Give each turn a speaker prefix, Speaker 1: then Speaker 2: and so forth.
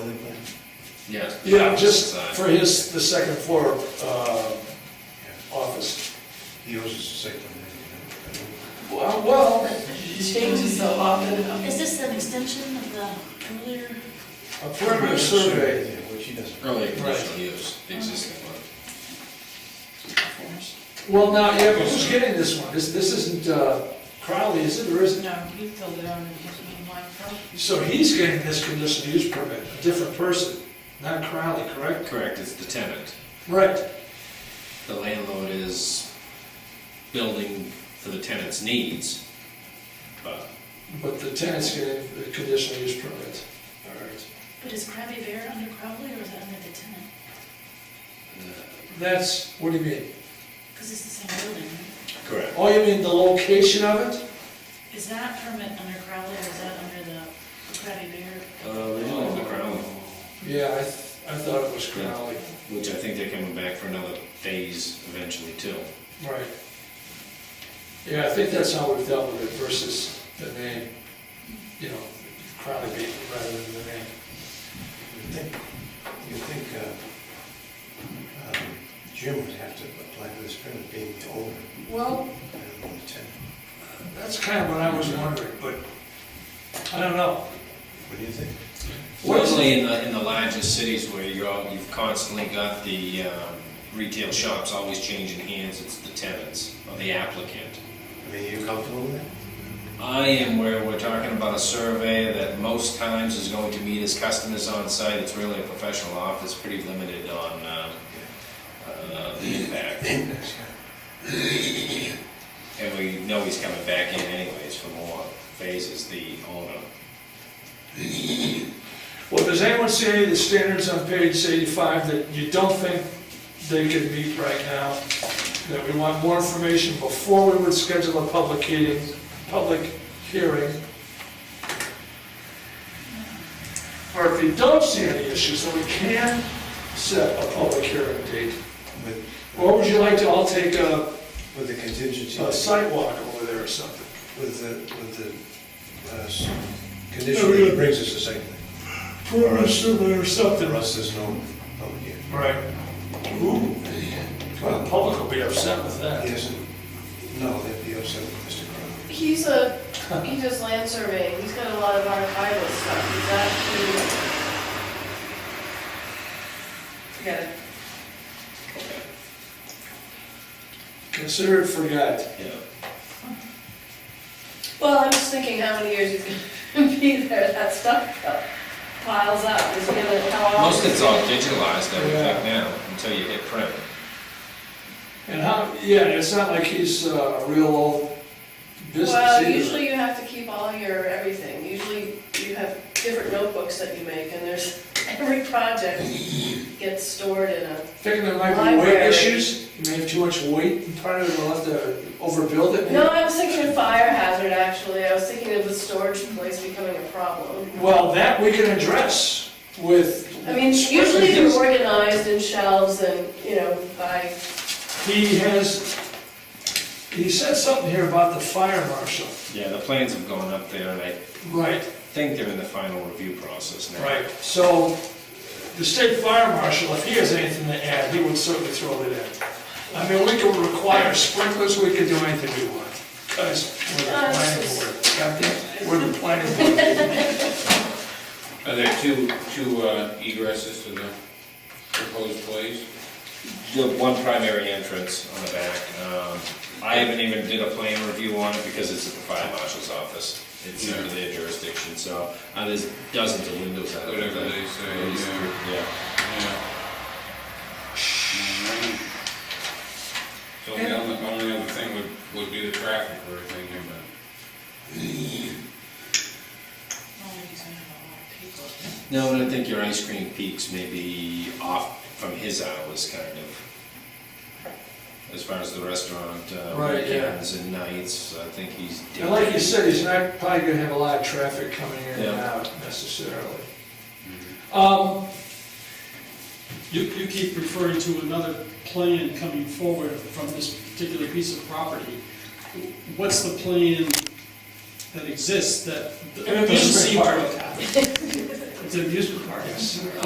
Speaker 1: Yes.
Speaker 2: Yeah, just
Speaker 1: uh,
Speaker 2: for his, the second floor uh, office.
Speaker 3: He owes us a second one. I think,
Speaker 2: Well, well,
Speaker 4: changes so often.
Speaker 5: Is this an extension of the earlier?
Speaker 2: a perimeter survey,
Speaker 3: Yeah, Which he doesn't.
Speaker 1: Early conditional use, the existing one.
Speaker 2: well, now, yeah, but who's getting this one? This, this isn't uh, Crowley, is it, or is it?
Speaker 4: No, he filled it out and he didn't like it.
Speaker 2: So he's getting this conditional use permit, a different person, not Crowley, correct?
Speaker 1: Correct, it's the tenant.
Speaker 2: Right.
Speaker 1: The landlord is building for the tenant's needs, but
Speaker 2: But the tenant's getting the conditional use permit. All right.
Speaker 5: But is Krabby Bear under Crowley or is it under the tenant?
Speaker 1: uh,
Speaker 2: That's, what do you mean?
Speaker 5: Because it's the same building, right?
Speaker 1: Correct.
Speaker 2: Oh, you mean the location of it?
Speaker 5: Is that permit under Crowley or is that under the Krabby Bear?
Speaker 1: Uh, they don't have the ground,
Speaker 2: Yeah, I, th- I thought it was Crowley.
Speaker 1: which I think they're coming back for another phase eventually too.
Speaker 2: Right. Yeah, I think that's how we've dealt with it versus the name, you know, Crowley beat rather than the name.
Speaker 3: You think, you think uh, um, Jim would have to apply for this permit being the owner,
Speaker 2: Well,
Speaker 3: rather than the tenant?
Speaker 2: that's kind of what I was wondering, but I don't know.
Speaker 3: What do you think?
Speaker 1: Fortunately, in the, in the larger cities where you're, all- you've constantly got the um, retail shops always changing hands, it's the tenants or the applicant.
Speaker 3: I mean, are you comfortable with that?
Speaker 1: I am where we're talking about a survey that most times is going to meet his customers on site. It's really a professional office, pretty limited on um, uh, the impact.
Speaker 3: Index, yeah.
Speaker 1: And we know he's coming back in anyways for more phases, the owner.
Speaker 2: Well, does anyone see any of the standards on page eighty-five that you don't think they could meet right now? That we want more information before we would schedule a public hearing, public hearing? Or if you don't see any issues, then we can set a public hearing date.
Speaker 3: With,
Speaker 2: Or would you like to all take a,
Speaker 3: with the contingency,
Speaker 2: a
Speaker 3: with
Speaker 2: Uh, site walk over there or something?
Speaker 3: the, with the uh, s- condition that he brings us a second thing.
Speaker 2: For a survey or something.
Speaker 3: For us, there's no public hearing.
Speaker 2: Right. Ooh, the public will be upset with that.
Speaker 3: Yes, no, that'd be upset with Mr. Crowe.
Speaker 4: He's a, he does land surveying, he's got a lot of archival stuff, he's actually. Forget it.
Speaker 2: Consider it forgot.
Speaker 1: Yeah.
Speaker 4: Well, I'm just thinking how many years he's gonna be there, that stuff piles up, is he gonna, how often?
Speaker 1: Most of it's all digitalized, I would think now, until you hit print.
Speaker 2: And how, yeah, it's not like he's uh, a real old business
Speaker 4: Well,
Speaker 2: either.
Speaker 4: usually you have to keep all your everything, usually you have different notebooks that you make, and there's, every project gets stored in a
Speaker 2: Thinking there might be weight
Speaker 4: Library.
Speaker 2: issues, you may have too much weight, and part of it will have to overbuild it.
Speaker 4: No, I was thinking of fire hazard, actually. I was thinking of the storage place becoming a problem.
Speaker 2: Well, that we can address with.
Speaker 4: I mean, usually they're organized in shelves and, you know, by,
Speaker 2: He has, he said something here about the fire marshal.
Speaker 1: Yeah, the plans have gone up there, and I
Speaker 2: Right.
Speaker 1: think they're in the final review process now.
Speaker 2: Right, so the state fire marshal, if he has anything to add, he would certainly throw it in. I mean, we could require sprinklers, we could do anything we want. Guys, we're the planning board, goddamn, we're the planning board.
Speaker 6: Are there two, two uh, egresses to the proposed place?
Speaker 1: The one primary entrance on the back. Um, I haven't even did a plan review on it because it's at the fire marshal's office. It's under their jurisdiction, so, uh, there's dozens of windows out there.
Speaker 6: Whatever they say,
Speaker 1: These-
Speaker 6: yeah.
Speaker 1: Yeah.
Speaker 6: Yeah. So the only, only other thing would, would be the traffic we're thinking about.
Speaker 5: Only because I Oh, have a lot of people.
Speaker 1: No, and I think your ice cream peaks may be off from his hours, kind of. As far as the restaurant, uh,
Speaker 2: Right, yeah.
Speaker 1: weekends and nights, I think he's.
Speaker 2: And like you said, he's not probably gonna have a lot of traffic coming in and
Speaker 1: Yeah.
Speaker 2: out necessarily. Um,
Speaker 7: You, you keep referring to another plan coming forward from this particular piece of property. What's the plan that exists that? that
Speaker 2: An amusement
Speaker 7: doesn't seem to
Speaker 2: park.
Speaker 7: have happened? It's an amusement park.
Speaker 2: yes.